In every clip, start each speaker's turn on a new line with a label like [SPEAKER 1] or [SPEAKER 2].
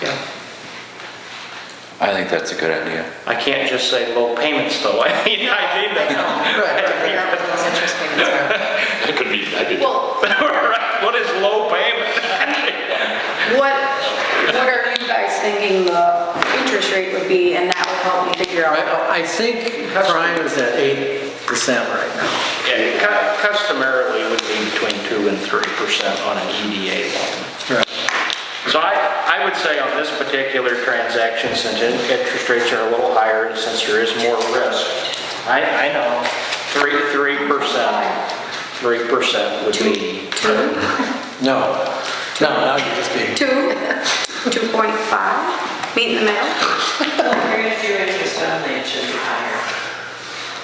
[SPEAKER 1] Yeah.
[SPEAKER 2] I think that's a good idea.
[SPEAKER 3] I can't just say low payments though, I mean, I need that
[SPEAKER 1] Right,
[SPEAKER 3] number. I
[SPEAKER 1] right,
[SPEAKER 3] have to
[SPEAKER 1] figure
[SPEAKER 3] figure
[SPEAKER 1] out what those interest payments are.
[SPEAKER 4] It could be, I did,
[SPEAKER 5] Well,
[SPEAKER 3] Right, What is low payment?
[SPEAKER 5] what, what are you guys thinking the interest rate would be, and that will help me figure out?
[SPEAKER 1] I, I think prime is at eight percent right now.
[SPEAKER 3] Yeah, cu- customarily would be between 2 and 3% on an E EDA loan. So I, I would say on this particular transaction, since in- interest rates are a little higher, and since there is more risk, I, I know, 3, 3%, 3% would be,
[SPEAKER 1] No, no, now you're just being,
[SPEAKER 5] Two, 2.5, meet in the middle?
[SPEAKER 6] Where is your interest only, it should be higher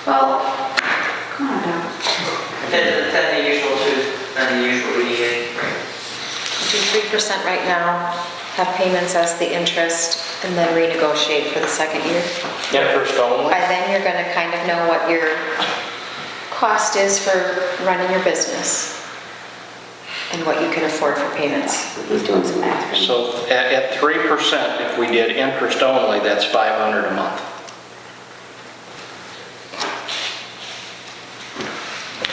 [SPEAKER 5] Well, come on now,
[SPEAKER 6] than, than the usual two, than the usual EDA rate.
[SPEAKER 7] Do 3% right now, have payments as the interest, and then renegotiate for the second year.
[SPEAKER 3] interest only.
[SPEAKER 7] By then, you're gonna kind of know what your cost is for running your business and what you can afford for payments.
[SPEAKER 5] he's doing some math. for me.
[SPEAKER 3] So at, at 3%, if we did interest only, that's 500 a month.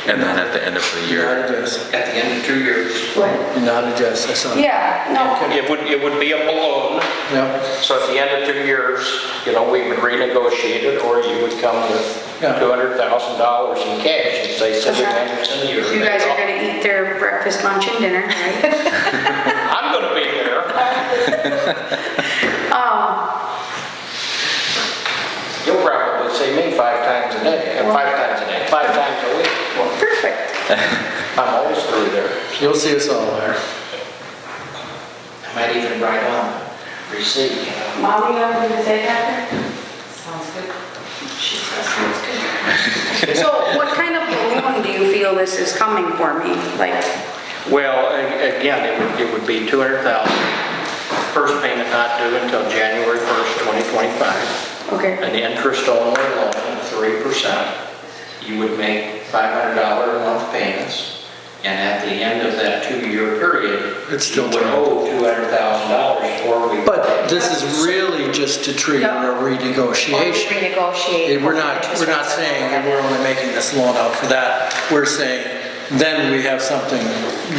[SPEAKER 2] And then at the end of the
[SPEAKER 1] not
[SPEAKER 2] year,
[SPEAKER 1] adjust,
[SPEAKER 3] At the end of two years.
[SPEAKER 5] What?
[SPEAKER 1] not adjust, I saw.
[SPEAKER 5] Yeah, no,
[SPEAKER 3] It would, it would be a balloon,
[SPEAKER 1] Yep,
[SPEAKER 3] so at the end of two years, you know, we would renegotiate it, or you would come with
[SPEAKER 1] Yeah.
[SPEAKER 3] $200,000 in cash and say seven hundred a year.
[SPEAKER 5] you guys are gonna eat their breakfast, lunch, and dinner, right?
[SPEAKER 3] I'm gonna be there.
[SPEAKER 5] Um,
[SPEAKER 3] You'll probably see me five times a day, uh, five times a day, five times a week.
[SPEAKER 5] perfect.
[SPEAKER 3] I'm always through there.
[SPEAKER 1] you'll see us all there.
[SPEAKER 3] I might even write on receipt, you know.
[SPEAKER 5] Mom, you have anything to say after?
[SPEAKER 6] Sounds good.
[SPEAKER 5] She says sounds good. So what kind of balloon do you feel this is coming for me? Like,
[SPEAKER 3] Well, a- again, it would, it would be 200,000. First payment not due until January 1st, 2025.
[SPEAKER 5] okay,
[SPEAKER 3] An interest-only loan of 3%. You would make $500 a month payments, and at the end of that two-year period,
[SPEAKER 1] It's still Oh,
[SPEAKER 3] you would
[SPEAKER 1] time.
[SPEAKER 3] owe $200,000 or we...
[SPEAKER 1] But this is really just to treat it a
[SPEAKER 7] Or
[SPEAKER 1] renegotiation.
[SPEAKER 7] renegotiate.
[SPEAKER 1] And We're not,
[SPEAKER 7] what the
[SPEAKER 1] we're
[SPEAKER 7] interest
[SPEAKER 1] not
[SPEAKER 7] rates are
[SPEAKER 1] saying
[SPEAKER 7] gonna
[SPEAKER 1] that
[SPEAKER 7] be.
[SPEAKER 1] we're only making this loan out for that. We're saying, then we have something,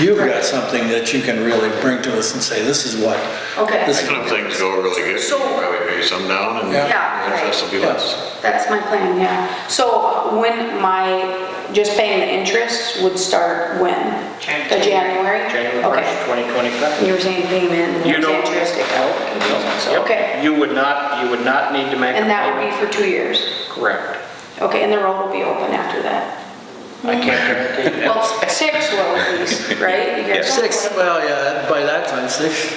[SPEAKER 1] you've got something that you can really bring to us and say, this is what.
[SPEAKER 5] Okay.
[SPEAKER 1] this is-
[SPEAKER 4] and if things go really good, you
[SPEAKER 5] So-
[SPEAKER 4] can probably pay some down and
[SPEAKER 1] Yeah.
[SPEAKER 5] Yeah,
[SPEAKER 4] the interest will be less.
[SPEAKER 5] that's my plan, yeah. So when my, just paying the interest would start when?
[SPEAKER 6] Jan-
[SPEAKER 5] The January?
[SPEAKER 3] January
[SPEAKER 5] Okay.
[SPEAKER 3] 1st, 2025.
[SPEAKER 5] You were saying payment,
[SPEAKER 3] You
[SPEAKER 5] and
[SPEAKER 3] don't-
[SPEAKER 5] what's interest, it goes.
[SPEAKER 3] Yep.
[SPEAKER 5] Okay.
[SPEAKER 3] You would not, you would not need to make...
[SPEAKER 5] and
[SPEAKER 3] a
[SPEAKER 5] that would be
[SPEAKER 3] payment.
[SPEAKER 5] for two years.
[SPEAKER 3] Correct.
[SPEAKER 5] Okay, and the road will be open after that.
[SPEAKER 3] I can't guarantee that.
[SPEAKER 5] Well, six will at least, right? You guys-
[SPEAKER 1] Six, well, yeah, by that time, six,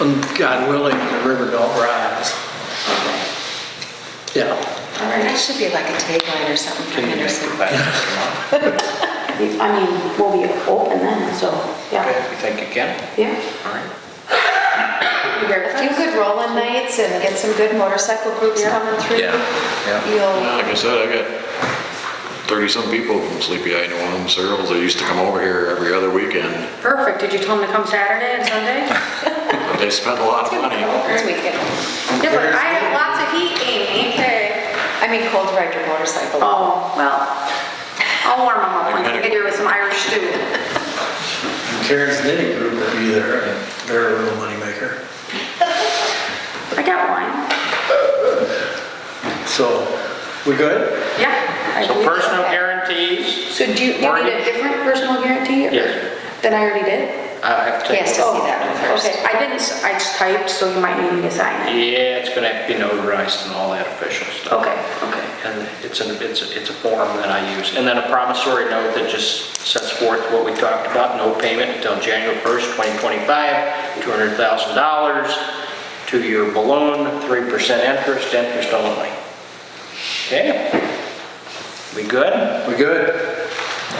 [SPEAKER 1] um, God willing, the river don't rise. Yeah,
[SPEAKER 5] All right.
[SPEAKER 7] That should be like a tagline or something for
[SPEAKER 3] Can you make it
[SPEAKER 7] Henderson.
[SPEAKER 3] back? You
[SPEAKER 5] I mean, we'll be open then, so,
[SPEAKER 3] know?
[SPEAKER 5] yeah,
[SPEAKER 3] You think you can?
[SPEAKER 5] yeah.
[SPEAKER 3] All right.
[SPEAKER 5] You very
[SPEAKER 7] A few good rolling nights and get some good motorcycle groups coming through.
[SPEAKER 2] Yeah,
[SPEAKER 1] yeah.
[SPEAKER 7] You'll,
[SPEAKER 4] Like I said, I got thirty-some people from Sleepy Eye, New Orleans, Searles, that used to come over here every other weekend.
[SPEAKER 5] Perfect, did you tell them to come Saturday and Sunday?
[SPEAKER 4] But They spent a lot of money.
[SPEAKER 7] this weekend,
[SPEAKER 5] Yeah, but I have lots of heat, Amy. Okay.
[SPEAKER 7] I mean, cold ride your motorcycle.
[SPEAKER 5] Oh, well, I'll warm them up once I get here with some Irish stew.
[SPEAKER 1] And Karen's knitting group will be there, and they're a real moneymaker.
[SPEAKER 5] I got wine.
[SPEAKER 1] So, we good?
[SPEAKER 5] Yeah. I
[SPEAKER 3] So
[SPEAKER 5] believe
[SPEAKER 3] personal
[SPEAKER 5] that.
[SPEAKER 3] guarantees,
[SPEAKER 5] So do you, you need a
[SPEAKER 3] Mortgage.
[SPEAKER 5] different personal guarantee? or-
[SPEAKER 3] Yes.
[SPEAKER 5] Than I already did? Oh,
[SPEAKER 3] I have to take.
[SPEAKER 7] Yes, to see that one first.
[SPEAKER 5] Okay, I didn't, s- I just typed, so you might need me to sign it.
[SPEAKER 3] Yeah, it's gonna have to be notarized and all that official stuff.
[SPEAKER 5] Okay, okay.
[SPEAKER 3] And it's a, it's a, it's a form that I use. And then a promissory note that just sets forth what we talked about, no payment until January 1st, 2025, $200,000, two-year balloon, 3% interest, interest only. Okay? We good?
[SPEAKER 1] We good?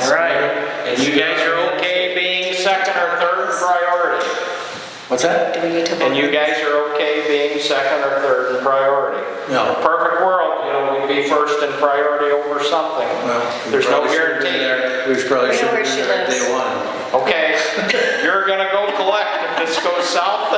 [SPEAKER 3] All right. And you guys are okay being second or third priority?
[SPEAKER 1] What's that?
[SPEAKER 7] Do we need to vote?
[SPEAKER 3] And you
[SPEAKER 7] on
[SPEAKER 3] guys are okay being second or third in priority?
[SPEAKER 1] No.
[SPEAKER 3] In a Perfect world, you know, we'd be first in priority over something.
[SPEAKER 1] Well, we
[SPEAKER 3] There's no
[SPEAKER 1] probably should've been
[SPEAKER 3] guarantee.
[SPEAKER 1] there. We probably
[SPEAKER 7] We know
[SPEAKER 1] should have
[SPEAKER 7] where
[SPEAKER 1] been
[SPEAKER 7] she
[SPEAKER 1] there
[SPEAKER 7] lives.
[SPEAKER 1] day one.
[SPEAKER 3] Okay, you're gonna go collect if this goes south